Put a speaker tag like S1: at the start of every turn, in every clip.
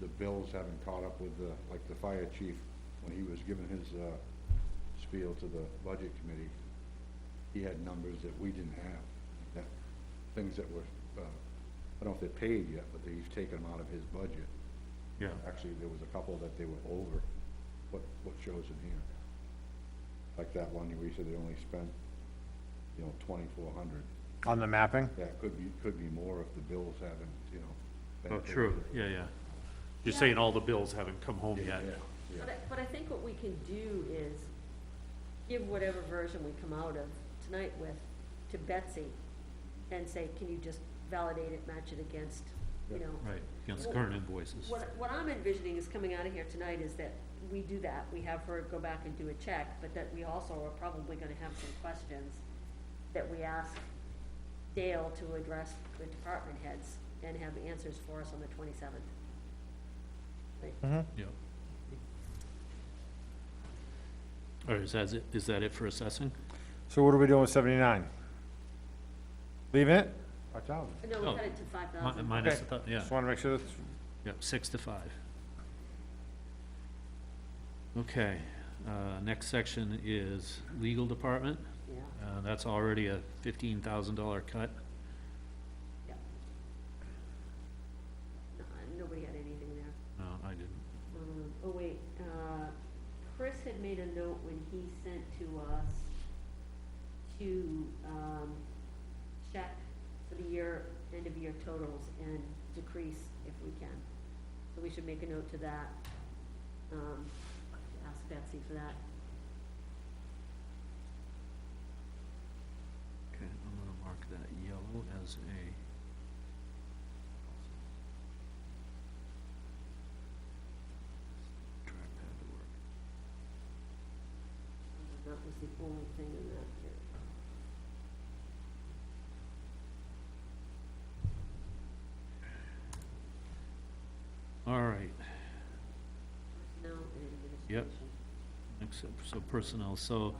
S1: the bills haven't caught up with the, like the fire chief, when he was giving his, uh, spiel to the budget committee, he had numbers that we didn't have, that, things that were, uh, I don't know if they're paid yet, but he's taken them out of his budget.
S2: Yeah,
S1: Actually, there was a couple that they were over, what, what shows in here. Like that one, we said they only spent, you know, twenty-four hundred.
S3: on the mapping?
S1: That could be, could be more if the bills haven't, you know. been
S2: oh,
S1: paid.
S2: true, yeah, yeah. You're saying all the bills haven't come home yet.
S1: yeah.
S4: But I, but I think what we can do is give whatever version we come out of tonight with to Betsy and say, can you just validate it, match it against, you
S1: Yeah.
S4: know?
S2: Right, against current invoices.
S4: What, what I'm envisioning is coming out of here tonight is that we do that, we have her go back and do a check, but that we also are probably gonna have some questions that we ask Dale to address the department heads and have answers for us on the twenty-seventh.
S2: Yeah. All right, is that, it- is that it for assessing?
S3: So what are we doing with seventy-nine? Leaving it?
S1: A thousand.
S4: No, we
S2: Oh.
S4: cut it to five
S2: Mi-
S4: thousand.
S2: Minus,
S3: Okay.
S2: the thou- yeah,
S3: Just wanna make sure that's,
S2: yeah, six to five. Okay, uh, next section is legal department.
S4: Yeah,
S2: Uh, that's already a fifteen thousand dollar cut.
S4: no, nobody had anything there.
S2: No, I didn't.
S4: Um, oh wait, uh, Chris had made a note when he sent to us to, um, check for the year, end of year totals and decrease if we can. So we should make a note to that, um, ask Betsy for that.
S2: Okay, I'm gonna mark that yellow as a. Trackpad to work.
S4: That was the only thing in that here.
S2: All right,
S4: Personnel and
S2: Yep.
S4: administration.
S2: except, so personnel, so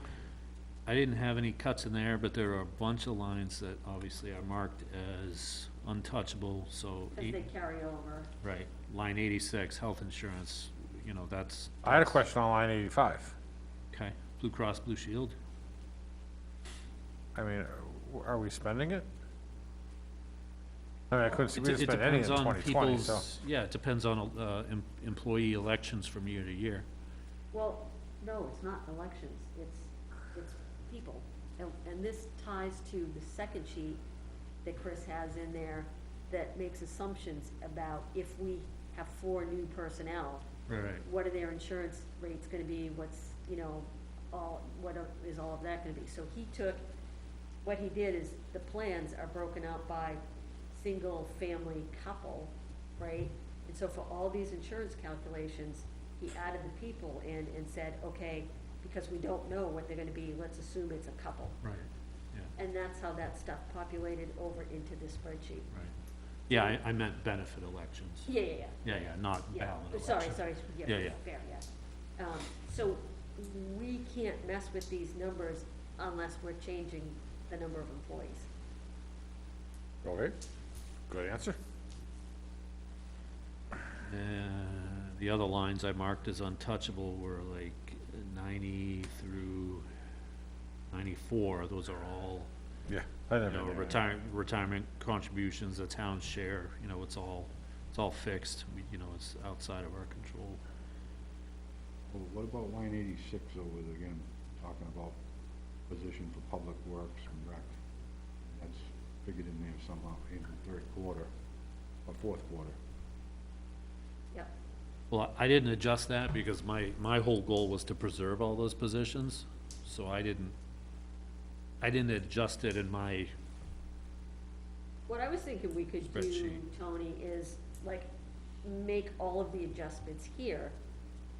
S2: I didn't have any cuts in there, but there are a bunch of lines that obviously are marked as untouchable, so.
S4: Cause
S2: eight-
S4: they carry over.
S2: Right, line eighty-six, health insurance, you know, that's.
S3: I had a
S2: that's-
S3: question on line eighty-five.
S2: Okay, Blue Cross Blue Shield,
S3: I mean, are- are we spending it? I mean, I couldn't,
S2: It
S3: see we didn't
S2: de- it
S3: spend any in
S2: depends on
S3: twenty twenty, so.
S2: people's- Yeah, it depends on, uh, em- employee elections from year to year.
S4: Well, no, it's not elections, it's, it's people. And, and this ties to the second sheet that Chris has in there that makes assumptions about if we have four new personnel,
S2: Right.
S4: what are their insurance rates gonna be, what's, you know, all, what are- is all of that gonna be? So he took, what he did is, the plans are broken out by single, family, couple, right? And so for all these insurance calculations, he added the people in and said, okay, because we don't know what they're gonna be, let's assume it's a couple.
S2: Right, yeah,
S4: And that's how that stuff populated over into this spreadsheet.
S2: right. Yeah, I, I meant benefit elections.
S4: Yeah, yeah, yeah.
S2: Yeah, yeah, not
S4: Yeah,
S2: ballot
S4: oh,
S2: elections.
S4: sorry, sorry, yeah,
S2: Yeah, yeah.
S4: fair, yeah. Um, so we can't mess with these numbers unless we're changing the number of employees.
S3: Okay, good answer.
S2: Uh, the other lines I marked as untouchable were like ninety through ninety-four, those are all,
S3: Yeah. I
S2: you
S3: never
S2: know,
S3: knew.
S2: retirement, retirement contributions, the town share, you know, it's all, it's all fixed, We- you know, it's outside of our control.
S1: Well, what about line eighty-six over there again, talking about position for public works and rec? That's figured in there somehow in the third quarter, or fourth quarter.
S4: Yep,
S2: Well, I didn't adjust that because my, my whole goal was to preserve all those positions, so I didn't, I didn't adjust it in my,
S4: what I was thinking we could do,
S2: Spreadsheet.
S4: Tony, is like, make all of the adjustments here,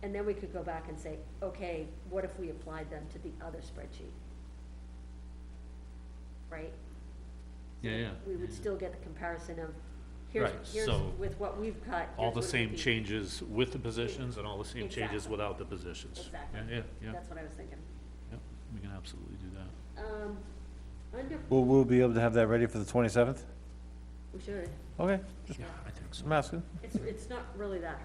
S4: and then we could go back and say, okay, what if we applied them to the other spreadsheet? Right?
S2: yeah, yeah.
S4: We would still get the comparison of, here's,
S2: Mm. Right,
S4: here's
S2: so
S4: with what we've cut.
S2: All the
S4: here's what it would
S2: same
S4: be.
S2: changes with the positions and all the same changes
S4: Exactly.
S2: without the positions.
S4: Exactly.
S2: Yeah, yeah, yeah,
S4: That's what I was thinking.
S2: yeah, we can absolutely do that.
S4: Um, under,
S3: Will, we'll be able to have that ready for the twenty-seventh?
S4: we should,
S3: Okay, just
S2: I think so.
S3: asking.
S4: it's, it's not really that hard